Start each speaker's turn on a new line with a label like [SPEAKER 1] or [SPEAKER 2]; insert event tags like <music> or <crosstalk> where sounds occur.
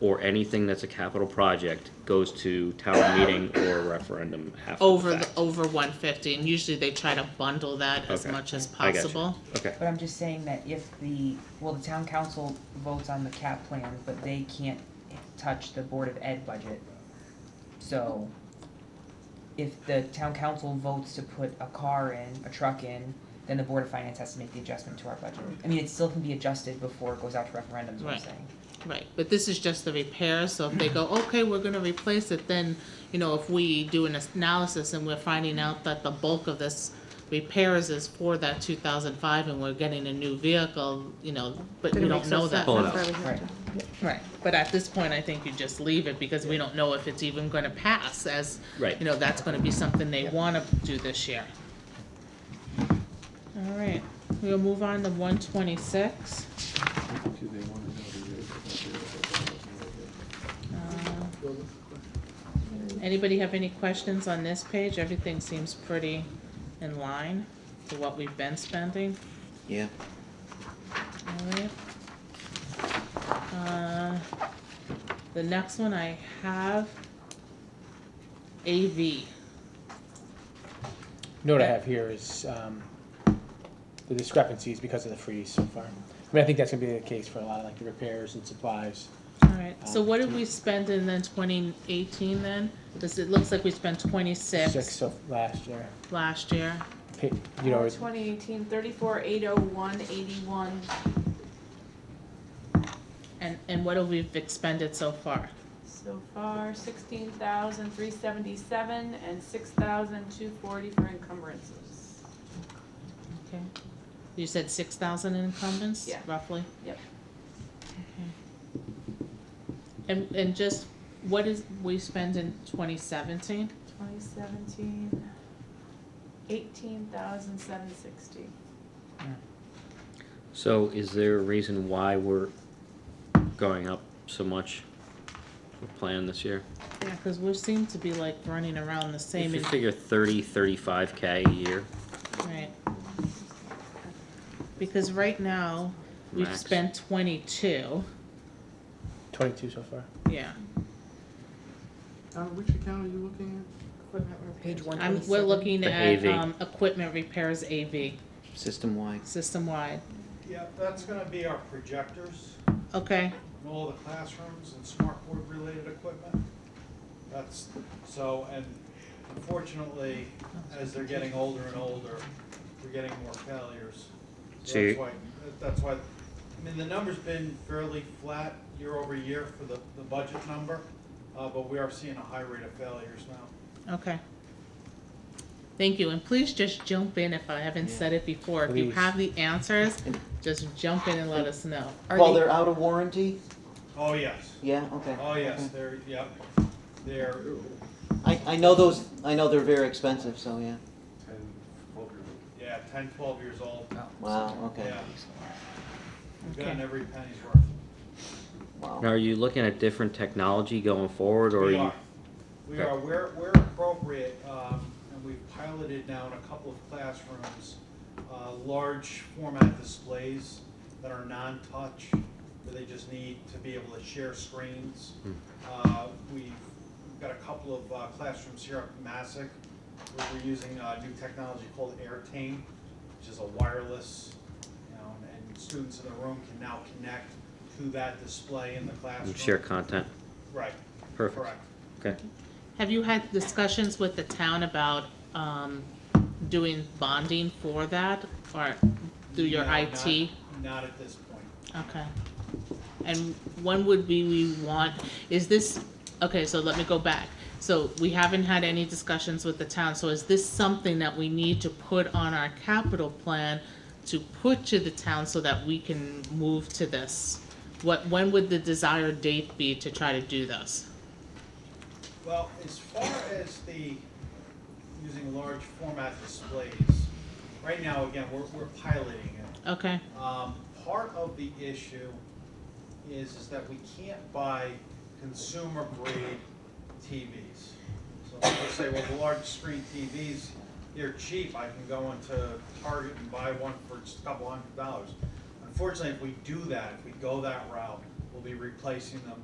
[SPEAKER 1] or anything that's a capital project goes to
[SPEAKER 2] <coughs>
[SPEAKER 1] town meeting or referendum after
[SPEAKER 2] over
[SPEAKER 1] the
[SPEAKER 2] the,
[SPEAKER 1] fact.
[SPEAKER 2] over one fifty, and usually they try to bundle that as
[SPEAKER 1] Okay.
[SPEAKER 2] much as
[SPEAKER 1] I gotcha.
[SPEAKER 2] possible.
[SPEAKER 1] Okay,
[SPEAKER 3] But I'm just saying that if the, well, the town council votes on the cap plan, but they can't touch the Board of Ed budget. So if the town council votes to put a car in, a truck in, then the Board of Finance has to make the adjustment to our budget. I mean, it still can be adjusted before it goes out to referendums, what I'm
[SPEAKER 2] Right.
[SPEAKER 3] saying.
[SPEAKER 2] Right, but this is just the repair, so if they go, okay, we're gonna replace it, then, you know, if we do an analysis and we're finding out that the bulk of this repairs is for that two thousand five and we're getting a new vehicle, you know, but
[SPEAKER 4] Then
[SPEAKER 2] we
[SPEAKER 4] it
[SPEAKER 2] don't
[SPEAKER 4] makes
[SPEAKER 2] know
[SPEAKER 4] no
[SPEAKER 2] that.
[SPEAKER 4] sense.
[SPEAKER 1] Pull it
[SPEAKER 4] That's
[SPEAKER 1] out.
[SPEAKER 4] why we have
[SPEAKER 3] Right.
[SPEAKER 4] to-
[SPEAKER 2] Right, but at this point, I think you just leave it because we don't know if it's even gonna pass as,
[SPEAKER 1] Right.
[SPEAKER 2] you know, that's gonna be something they wanna do this year. All right, we'll move on to one twenty-six. Anybody have any questions on this page? Everything seems pretty in line to what we've been spending.
[SPEAKER 5] Yeah.
[SPEAKER 2] Alright. Uh, The next one I have, AV.
[SPEAKER 6] note I have here is um, the discrepancies because of the freeze so far. I mean, I think that's gonna be the case for a lot of like the repairs and supplies.
[SPEAKER 2] Alright, so what did we spend in then twenty eighteen then? Cause it looks like we spent
[SPEAKER 6] Six
[SPEAKER 2] twenty-six
[SPEAKER 6] of last year,
[SPEAKER 2] last year.
[SPEAKER 6] Pa- you
[SPEAKER 4] Oh,
[SPEAKER 6] know, it's-
[SPEAKER 4] 2018, 34, 801, 81.
[SPEAKER 2] And, and what have we expended so far?
[SPEAKER 4] So far, 16,377 and 6,240 for encumbrances.
[SPEAKER 2] Okay. You said six thousand incumbents,
[SPEAKER 4] Yeah.
[SPEAKER 2] roughly?
[SPEAKER 4] Yep.
[SPEAKER 2] Okay. And, and just, what is, we spend in twenty seventeen?
[SPEAKER 4] 2017, 18,760.
[SPEAKER 1] so is there a reason why we're going up so much with plan this year?
[SPEAKER 2] Yeah, cause we seem to be like running around the
[SPEAKER 1] If
[SPEAKER 2] same,
[SPEAKER 1] you
[SPEAKER 2] in-
[SPEAKER 1] figure thirty, thirty-five K a year,
[SPEAKER 2] right? Because right now, we've
[SPEAKER 1] Max.
[SPEAKER 2] spent twenty-two,
[SPEAKER 6] twenty-two so far.
[SPEAKER 2] yeah.
[SPEAKER 7] Uh, which account are you looking
[SPEAKER 3] Page one
[SPEAKER 2] I'm, we're looking
[SPEAKER 1] The
[SPEAKER 2] at,
[SPEAKER 1] AV.
[SPEAKER 2] um, equipment repairs AV,
[SPEAKER 5] System-wide.
[SPEAKER 2] system-wide,
[SPEAKER 8] Yeah, that's gonna be our projectors,
[SPEAKER 2] okay,
[SPEAKER 8] and all the classrooms and smart board related equipment. That's, so, and unfortunately, as they're getting older and older, we're getting more failures.
[SPEAKER 1] So
[SPEAKER 8] So
[SPEAKER 1] you-
[SPEAKER 8] that's why, that's why, I mean, the number's been fairly flat year over year for the, the budget number, uh, but we are seeing a high rate of failures now.
[SPEAKER 2] okay. Thank you, and please just jump in if I haven't said it before, if you
[SPEAKER 6] Please.
[SPEAKER 2] have the answers, just jump in and let us know.
[SPEAKER 5] Well, they're out of warranty?
[SPEAKER 8] Oh, yes,
[SPEAKER 5] Yeah, okay.
[SPEAKER 8] oh, yes, they're, yep, they're,
[SPEAKER 5] I, I know those, I know they're very expensive, so yeah.
[SPEAKER 7] at? Ten, twelve year old.
[SPEAKER 8] yeah, ten, twelve years old,
[SPEAKER 5] Wow, okay,
[SPEAKER 8] yeah. We've
[SPEAKER 2] Okay.
[SPEAKER 8] gotten every penny's worth.
[SPEAKER 5] wow.
[SPEAKER 1] now are you looking at different technology going forward, or are
[SPEAKER 8] We
[SPEAKER 1] you?
[SPEAKER 8] are, we are, where, where appropriate, um, and we've piloted now in a couple of classrooms, uh, large format displays that are non-touch, where they just need to be able to share screens.
[SPEAKER 1] Hmm.
[SPEAKER 8] Uh, we've got a couple of uh, classrooms here up in Massac, where we're using a new technology called AirTame, which is a wireless, you know, and- and students in the room can now connect to that display in the classroom.
[SPEAKER 1] Share content,
[SPEAKER 8] Right,
[SPEAKER 1] perfect,
[SPEAKER 8] correct.
[SPEAKER 1] okay.
[SPEAKER 2] Have you had discussions with the town about, um, doing bonding for that, or through your
[SPEAKER 8] No,
[SPEAKER 2] IT?
[SPEAKER 8] not- Not at this point.
[SPEAKER 2] Okay. And when would we, we want, is this, okay, so let me go back. So we haven't had any discussions with the town, so is this something that we need to put on our capital plan to put to the town so that we can move to this? What, when would the desired date be to try to do this?
[SPEAKER 8] Well, as far as the, using large format displays, right now, again, we're, we're piloting it.
[SPEAKER 2] Okay,
[SPEAKER 8] Um, part of the issue is, is that we can't buy consumer grade TVs. So let's say with large screen TVs, they're cheap, I can go into Target and buy one for just a couple hundred dollars. Unfortunately, if we do that, if we go that route, we'll be replacing them